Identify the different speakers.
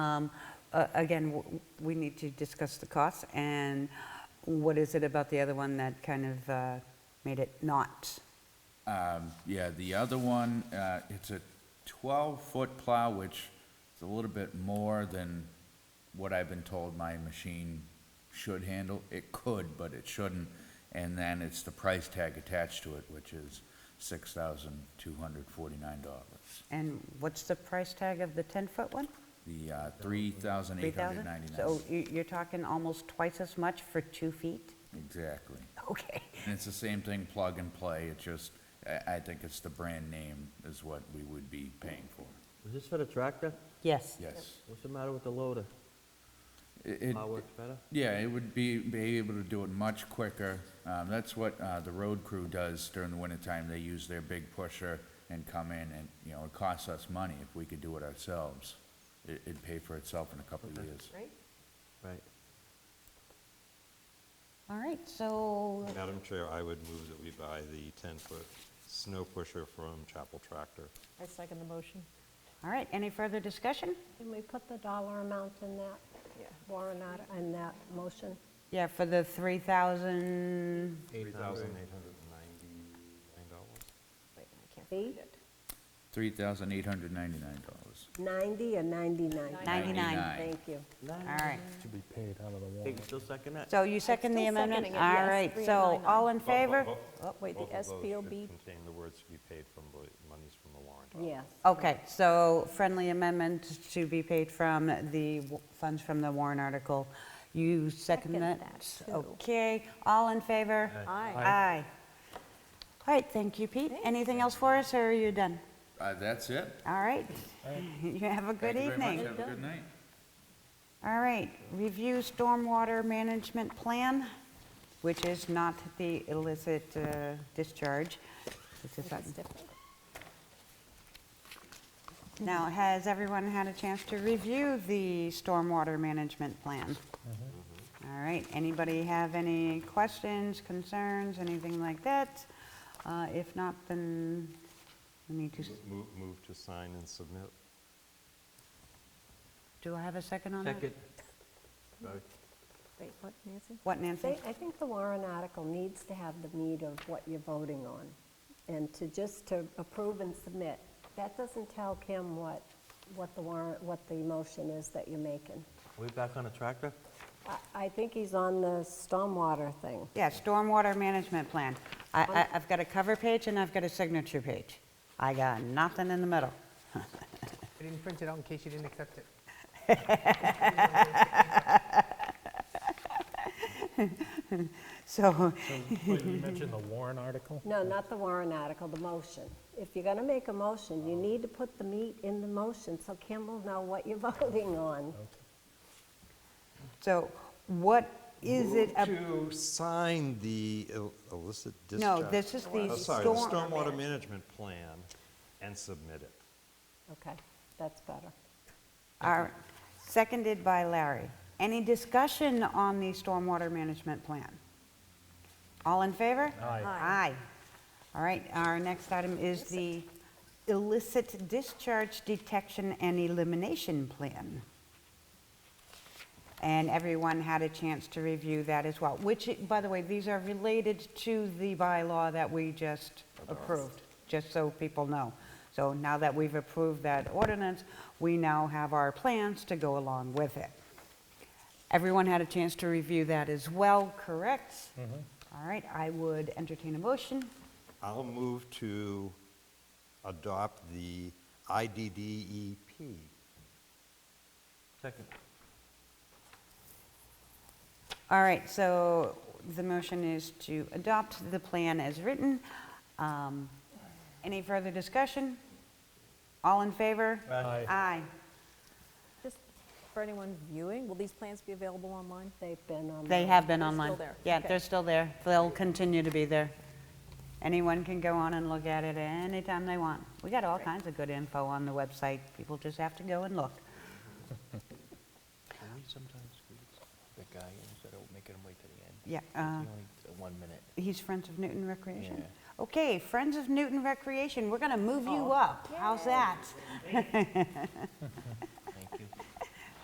Speaker 1: Um, uh, Again, w- we need to discuss the costs, and what is it about the other one that kind of uh, made it not?
Speaker 2: Um, Yeah, the other one, uh, it's a 12-foot plow, which is a little bit more than what I've been told my machine should handle. It could, but it shouldn't. And then it's the price tag attached to it, which is $6,249.
Speaker 1: And what's the price tag of the 10-foot one?
Speaker 2: The uh,
Speaker 1: 3,000?
Speaker 2: $3,899.
Speaker 1: So you- you're talking almost twice as much for two feet?
Speaker 2: Exactly.
Speaker 1: Okay.
Speaker 2: And it's the same thing, plug and play. It just, I I think it's the brand name is what we would be paying for.
Speaker 3: Is this for the tractor?
Speaker 1: Yes.
Speaker 2: Yes.
Speaker 3: What's the matter with the loader?
Speaker 2: It- it-
Speaker 3: Power works better?
Speaker 2: Yeah, it would be, be able to do it much quicker. Um, that's what, uh, the road crew does during the wintertime. They use their big pusher and come in and, you know, it costs us money if we could do it ourselves. It, it'd pay for itself in a couple of years.
Speaker 1: Right.
Speaker 3: Right.
Speaker 1: All right, so,
Speaker 4: Madam Chair, I would move that we buy the 10-foot snow pusher from Chapel Tractor.
Speaker 5: I second the motion.
Speaker 1: all right, any further discussion?
Speaker 6: Can we put the dollar amount in that warrant, art- in that motion?
Speaker 1: Yeah, for the 3,000,
Speaker 4: $3,899.
Speaker 5: Wait, I can't
Speaker 6: See?
Speaker 5: find it.
Speaker 2: Three thousand eight hundred ninety-nine dollars.
Speaker 6: 90 or 99?
Speaker 1: 99.
Speaker 6: Thank you.
Speaker 1: all right.
Speaker 7: Should be paid out of the
Speaker 3: Think
Speaker 7: warrant.
Speaker 3: you still second that?
Speaker 1: So you second the
Speaker 5: still
Speaker 1: amendment?
Speaker 5: seconding it, yes,
Speaker 1: All right, so
Speaker 5: 3,899.
Speaker 1: all in favor?
Speaker 4: Bo-
Speaker 5: Oh, wait, the
Speaker 4: both of those should
Speaker 5: SPOB,
Speaker 4: Contain the words to be paid from the monies from the warrant. article.
Speaker 6: Yes.
Speaker 1: Okay, so friendly amendment to be paid from the w- funds from the warrant article. You second
Speaker 5: Second
Speaker 1: that?
Speaker 5: that, too.
Speaker 1: Okay, all in favor?
Speaker 5: Aye.
Speaker 1: Aye. All right, thank you, Pete. Anything else for us, or are you done?
Speaker 2: Uh, that's it.
Speaker 1: All right. You have a good
Speaker 2: Thank you very much.
Speaker 1: evening.
Speaker 2: Have a good night.
Speaker 1: All right, review stormwater management plan, which is not the illicit uh, discharge. It's a
Speaker 5: that's
Speaker 1: sudden-
Speaker 5: different.
Speaker 1: Now, has everyone had a chance to review the stormwater management plan? All right, anybody have any questions, concerns, anything like that? Uh, If not, then we need to, s-
Speaker 4: Move, move to sign and submit.
Speaker 1: do I have a second on that?
Speaker 3: Second.
Speaker 5: Wait, what, Nancy?
Speaker 1: What, Nancy?
Speaker 6: They- I think the warrant article needs to have the meat of what you're voting on, and to just to approve and submit. That doesn't tell Kim what, what the warrant, what the motion is that you're making.
Speaker 3: We back on the tractor?
Speaker 6: I- I think he's on the stormwater thing.
Speaker 1: Yeah, stormwater management plan. I- I, I've got a cover page and I've got a signature page. I got nothing in the middle.
Speaker 8: I didn't print it out in case you didn't accept it.
Speaker 1: So,
Speaker 7: Wait, you mentioned the warrant article?
Speaker 6: No, not the warrant article, the motion. If you're going to make a motion, you need to put the meat in the motion so Kim will know what you're voting on.
Speaker 1: so what is it? ab-
Speaker 4: To sign the ill- illicit discharge.
Speaker 1: No, this is the
Speaker 4: Oh, Sorry, the
Speaker 1: storm,
Speaker 4: stormwater management plan and submit it.
Speaker 6: Okay, that's better.
Speaker 1: Are- seconded by Larry. Any discussion on the stormwater management plan? All in favor?
Speaker 7: Aye.
Speaker 1: Aye. All right, our next item is the illicit discharge detection and elimination plan. And everyone had a chance to review that as well, which, by the way, these are related to the bylaw that we just approved, just so people know. So now that we've approved that ordinance, we now have our plans to go along with it. Everyone had a chance to review that as well, correct? All right, I would entertain a motion.
Speaker 4: I'll move to adopt the IDDEP.
Speaker 3: Second.
Speaker 1: All right, so the motion is to adopt the plan as written. Um, Any further discussion? All in favor?
Speaker 7: Aye.
Speaker 1: Aye.
Speaker 5: Just for anyone viewing, will these plans be available online?
Speaker 6: They've been on.
Speaker 1: They have been
Speaker 5: They're still
Speaker 1: online.
Speaker 5: there,
Speaker 1: Yeah,
Speaker 5: okay.
Speaker 1: they're still there. They'll continue to be there. Anyone can go on and look at it anytime they want. We got all kinds of good info on the website. People just have to go and look.
Speaker 9: Can we sometimes squeeze the guy in instead of making him wait to the end?
Speaker 1: Yeah, uh,
Speaker 9: It's only a one minute.
Speaker 1: He's Friends of Newton Recreation?
Speaker 5: Oh.
Speaker 1: Okay, Friends of Newton Recreation, we're going to move you up. How's that?